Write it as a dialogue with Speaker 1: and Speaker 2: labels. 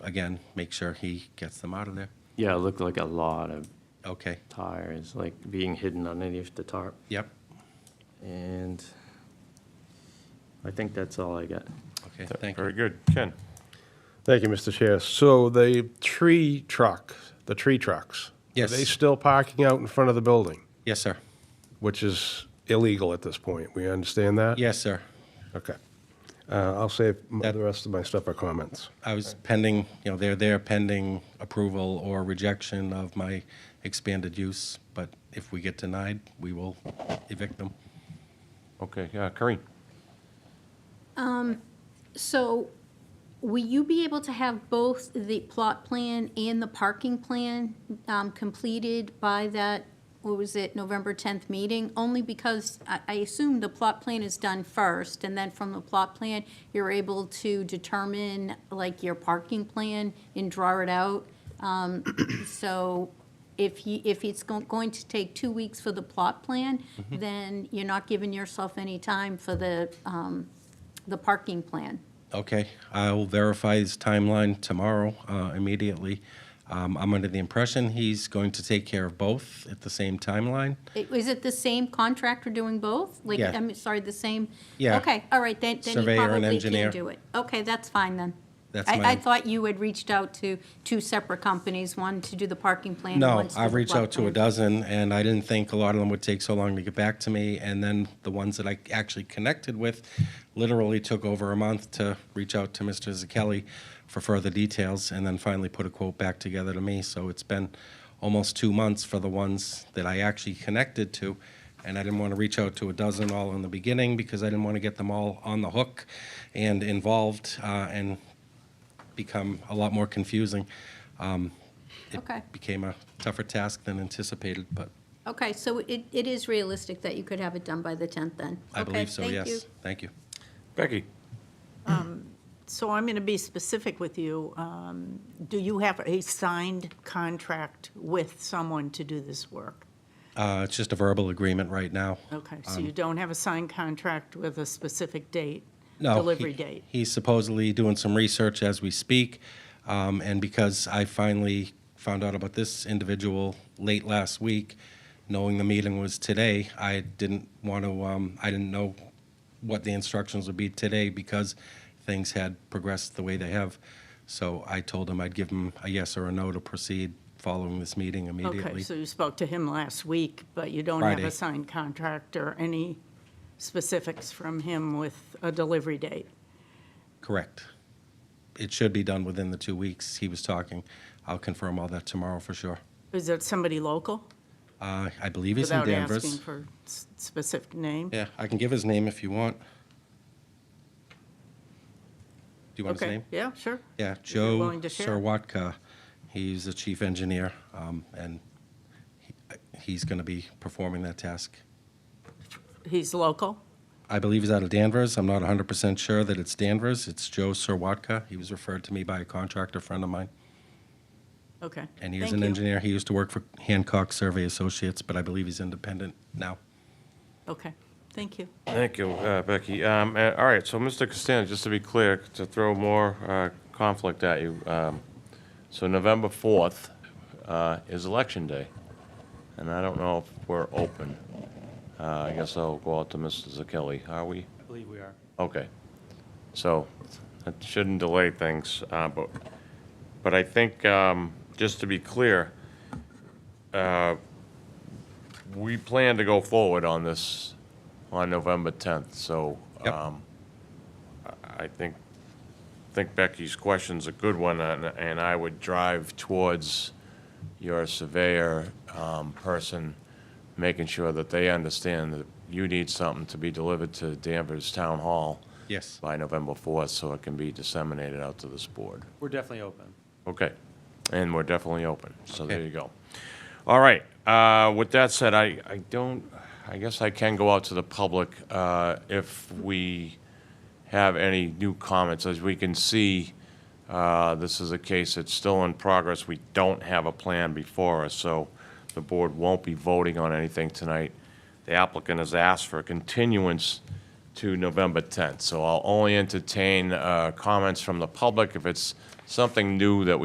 Speaker 1: again, make sure he gets them out of there.
Speaker 2: Yeah, it looked like a lot of
Speaker 1: Okay,
Speaker 2: tires, like being hidden underneath the tarp.
Speaker 1: yep,
Speaker 2: And I think that's all I got.
Speaker 1: okay, thank
Speaker 3: Very
Speaker 1: you.
Speaker 3: good. Ken?
Speaker 4: Thank you, Mr. Chair. So the tree truck, the tree trucks.
Speaker 1: Yes.
Speaker 4: Are they still parking out in front of the building,
Speaker 1: Yes, sir.
Speaker 4: which is illegal at this point? We understand that?
Speaker 1: Yes, sir.
Speaker 4: Okay. Uh, I'll save m-
Speaker 1: That-
Speaker 4: the rest of my stuff for comments.
Speaker 1: I was pending, you know, they're there pending approval or rejection of my expanded use, but if we get denied, we will evict them.
Speaker 3: Okay, uh, Corinne?
Speaker 5: So will you be able to have both the plot plan and the parking plan um, completed by that, what was it, November 10th meeting? Only because I I assume the plot plan is done first, and then from the plot plan, you're able to determine, like, your parking plan and draw it out. Um, So if you, if it's go- going to take two weeks for the plot plan, then you're not giving yourself any time for the, um, the parking plan.
Speaker 1: Okay, I'll verify his timeline tomorrow uh, immediately. Um, I'm under the impression he's going to take care of both at the same timeline.
Speaker 5: I- Is it the same contractor doing both? Like,
Speaker 1: Yeah.
Speaker 5: I'm sorry, the same?
Speaker 1: Yeah.
Speaker 5: Okay, all right, then, then
Speaker 1: Surveyor
Speaker 5: you
Speaker 1: and
Speaker 5: probably
Speaker 1: engineer.
Speaker 5: can do it. Okay, that's fine then.
Speaker 1: That's
Speaker 5: I,
Speaker 1: my-
Speaker 5: I thought you had reached out to two separate companies, one to do the parking plan. and one
Speaker 1: No,
Speaker 5: to do
Speaker 1: I've
Speaker 5: the
Speaker 1: reached
Speaker 5: plot
Speaker 1: out to a
Speaker 5: plan.
Speaker 1: dozen, and I didn't think a lot of them would take so long to get back to me. And then the ones that I actually connected with literally took over a month to reach out to Mr. Zakelli for further details, and then finally put a quote back together to me. So it's been almost two months for the ones that I actually connected to. And I didn't want to reach out to a dozen all in the beginning because I didn't want to get them all on the hook and involved uh, and become a lot more confusing. Um, it
Speaker 5: Okay.
Speaker 1: became a tougher task than anticipated, but
Speaker 5: Okay, so it, it is realistic that you could have it done by the 10th then?
Speaker 1: I
Speaker 5: Okay,
Speaker 1: believe so,
Speaker 5: thank you.
Speaker 1: yes. Thank you.
Speaker 3: Becky?
Speaker 6: So I'm going to be specific with you. Um, Do you have a signed contract with someone to do this work?
Speaker 1: Uh, It's just a verbal agreement right now.
Speaker 6: Okay, so
Speaker 1: Um,
Speaker 6: you don't have a signed contract with a specific date?
Speaker 1: No,
Speaker 6: Delivery
Speaker 1: he-
Speaker 6: date?
Speaker 1: He's supposedly doing some research as we speak, um, and because I finally found out about this individual late last week, knowing the meeting was today, I didn't want to, um, I didn't know what the instructions would be today because things had progressed the way they have. So I told him I'd give him a yes or a no to proceed following this meeting immediately.
Speaker 6: Okay, so you spoke to him last week, but you don't have
Speaker 1: Friday.
Speaker 6: a signed contract or any specifics from him with a delivery date?
Speaker 1: Correct. It should be done within the two weeks he was talking. I'll confirm all that tomorrow for sure.
Speaker 6: Is it somebody local?
Speaker 1: Uh, I believe he's in
Speaker 6: Without asking
Speaker 1: Danvers.
Speaker 6: for s- specific name?
Speaker 1: Yeah, I can give his name if you want. Do you want his
Speaker 6: Okay,
Speaker 1: name?
Speaker 6: yeah, sure.
Speaker 1: Yeah,
Speaker 6: you're
Speaker 1: Joe
Speaker 6: willing to share.
Speaker 1: Sirwatka. He's the chief engineer, um, and he- uh, he's going to be performing that task.
Speaker 6: He's local?
Speaker 1: I believe he's out of Danvers. I'm not 100% sure that it's Danvers. It's Joe Sirwatka. He was referred to me by a contractor friend of mine.
Speaker 6: Okay.
Speaker 1: And he was
Speaker 6: Thank
Speaker 1: an
Speaker 6: you.
Speaker 1: engineer. He used to work for Hancock Survey Associates, but I believe he's independent now.
Speaker 6: Okay, thank you.
Speaker 3: Thank you, uh, Becky. Um, uh, All right, so Mr. Costanza, just to be clear, to throw more uh, conflict at you, um, so November 4th uh, is Election Day, and I don't know if we're open. Uh, I guess I'll go out to Mr. Zakelli. Are we?
Speaker 2: I believe we are.
Speaker 3: Okay. So that shouldn't delay things, uh, but, but I think, um, just to be clear, uh, we plan to go forward on this on November 10th, so
Speaker 1: Yep.
Speaker 3: um, I- I think, think Becky's question's a good one, and and I would drive towards your surveyor um, person, making sure that they understand that you need something to be delivered to Danvers Town Hall
Speaker 1: Yes.
Speaker 3: by November 4th, so it can be disseminated out to this board.
Speaker 7: We're definitely open.
Speaker 3: Okay, and we're definitely open, so there
Speaker 1: Okay.
Speaker 3: you go. All right, uh, with that said, I, I don't, I guess I can go out to the public uh, if we have any new comments. As we can see, uh, this is a case that's still in progress. We don't have a plan before us, so the board won't be voting on anything tonight. The applicant has asked for a continuance to November 10th, so I'll only entertain uh, comments from the public if it's something new that we